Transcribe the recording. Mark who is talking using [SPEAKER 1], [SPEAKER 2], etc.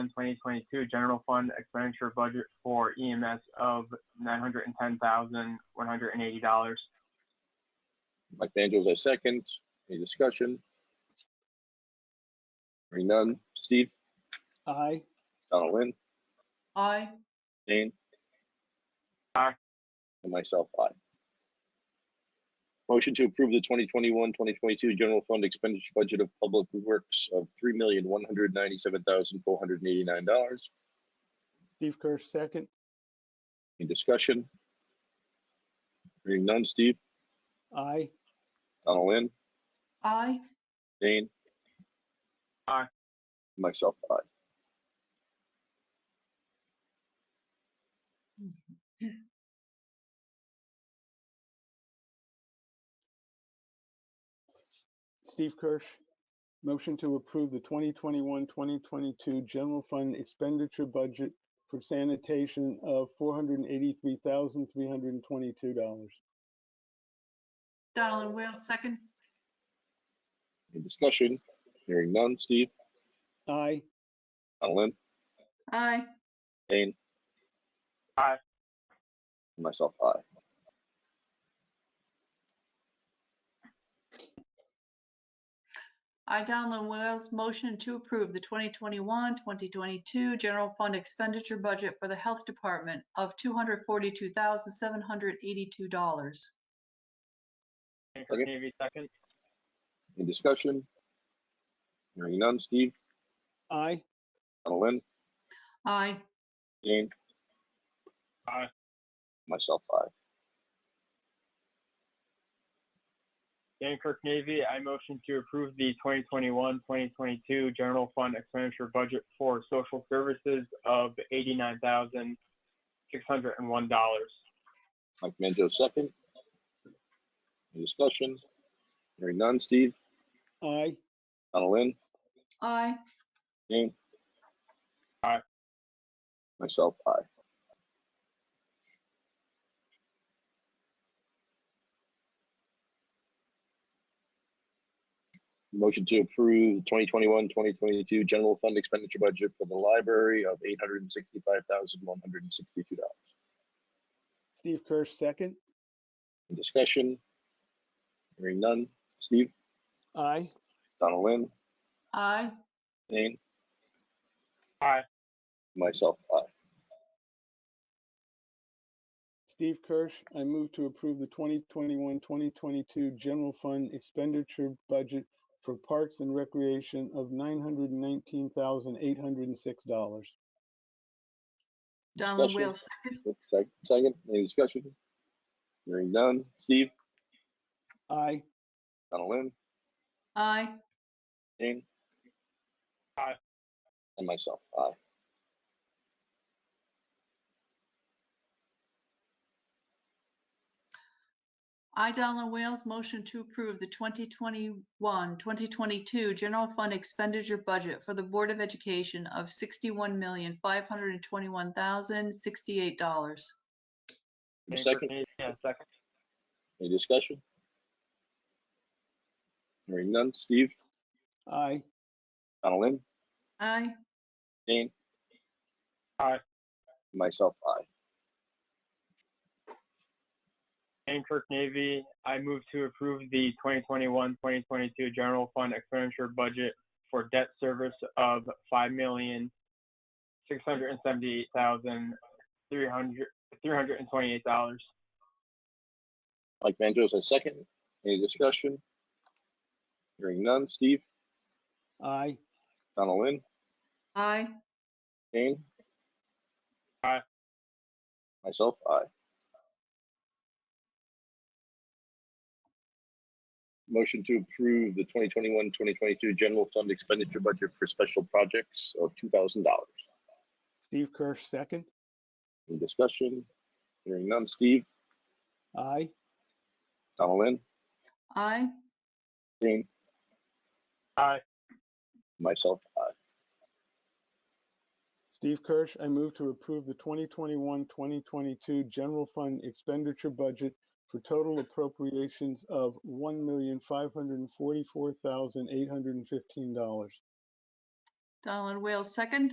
[SPEAKER 1] 2021-2022 general fund expenditure budget for EMS of $910,180.
[SPEAKER 2] Mike Manjos, I second. Any discussion? Hearing none. Steve,
[SPEAKER 3] aye,
[SPEAKER 2] Donald Lynn,
[SPEAKER 4] aye,
[SPEAKER 2] Dane.
[SPEAKER 1] Aye.
[SPEAKER 2] And myself, aye. Motion to approve the 2021-2022 general fund expenditure budget of public works of $3,197,489.
[SPEAKER 3] Steve Kirsch, second,
[SPEAKER 2] Any discussion? Hearing none. Steve,
[SPEAKER 3] aye,
[SPEAKER 2] Donald Lynn,
[SPEAKER 4] aye,
[SPEAKER 2] Dane?
[SPEAKER 1] Aye.
[SPEAKER 2] Myself, aye.
[SPEAKER 3] Steve Kirsch. Motion to approve the 2021-2022 general fund expenditure budget for sanitation of $483,322.
[SPEAKER 4] Donald Wales, second,
[SPEAKER 2] Any discussion? Hearing none. Steve,
[SPEAKER 3] Aye,
[SPEAKER 2] Alan,
[SPEAKER 4] aye,
[SPEAKER 2] Dane?
[SPEAKER 1] Aye.
[SPEAKER 2] Myself, aye.
[SPEAKER 4] I, Donald Wales, motion to approve the 2021-2022 general fund expenditure budget for the Health Department of $242,782.
[SPEAKER 1] Hanford
[SPEAKER 2] Second.
[SPEAKER 1] Navy, second.
[SPEAKER 2] Any discussion? Hearing none. Steve,
[SPEAKER 3] aye,
[SPEAKER 2] Alan,
[SPEAKER 4] Aye,
[SPEAKER 2] Dane?
[SPEAKER 1] Aye.
[SPEAKER 2] Myself, aye.
[SPEAKER 1] Dankirk Navy, I motion to approve the 2021-2022 general fund expenditure budget for social services of $89,601.
[SPEAKER 2] Mike Manjos, second. Any discussion? Hearing none. Steve,
[SPEAKER 3] aye,
[SPEAKER 2] Alan,
[SPEAKER 4] aye,
[SPEAKER 2] Dane?
[SPEAKER 1] Aye.
[SPEAKER 2] Myself, aye. Motion to approve 2021-2022 general fund expenditure budget for the library of $865,162.
[SPEAKER 3] Steve Kirsch, second,
[SPEAKER 2] Discussion? Hearing none. Steve?
[SPEAKER 3] aye,
[SPEAKER 2] Donald Lynn?
[SPEAKER 4] aye,
[SPEAKER 2] Dane?
[SPEAKER 1] Aye.
[SPEAKER 2] Myself, aye.
[SPEAKER 3] Steve Kirsch, I move to approve the 2021-2022 general fund expenditure budget for parks and recreation of $919,806.
[SPEAKER 4] Donald
[SPEAKER 2] Discussion.
[SPEAKER 4] Wales, second,
[SPEAKER 2] Sec- Second, any discussion? Hearing none. Steve,
[SPEAKER 3] Aye,
[SPEAKER 2] Donald Lynn,
[SPEAKER 4] aye,
[SPEAKER 2] Jane?
[SPEAKER 1] Aye.
[SPEAKER 2] And myself, aye.
[SPEAKER 4] I, Donald Wales, motion to approve the 2021-2022 general fund expenditure budget for the Board of Education of $61,521,068.
[SPEAKER 2] Give me a
[SPEAKER 1] Dankirk
[SPEAKER 2] Second,
[SPEAKER 1] Navy, yeah, second.
[SPEAKER 2] any discussion? Hearing none. Steve,
[SPEAKER 3] aye,
[SPEAKER 2] Donald Lynn,
[SPEAKER 4] Aye,
[SPEAKER 2] Jane?
[SPEAKER 1] Aye.
[SPEAKER 2] Myself, aye.
[SPEAKER 1] Dankirk Navy, I move to approve the 2021-2022 general fund expenditure budget for debt service of $5,678,328.
[SPEAKER 2] Mike Manjos, a second. Any discussion? Hearing none. Steve,
[SPEAKER 3] aye,
[SPEAKER 2] Donald Lynn,
[SPEAKER 4] aye,
[SPEAKER 2] Jane?
[SPEAKER 1] Aye.
[SPEAKER 2] Myself, aye. Motion to approve the 2021-2022 general fund expenditure budget for special projects of $2,000.
[SPEAKER 3] Steve Kirsch, second,
[SPEAKER 2] Any discussion? Hearing none. Steve,
[SPEAKER 3] aye,
[SPEAKER 2] Donald Lynn,
[SPEAKER 4] aye,
[SPEAKER 2] Jane?
[SPEAKER 1] Aye.
[SPEAKER 2] Myself, aye.
[SPEAKER 3] Steve Kirsch, I move to approve the 2021-2022 general fund expenditure budget for total appropriations of $1,544,815.
[SPEAKER 4] Donald Wales, second.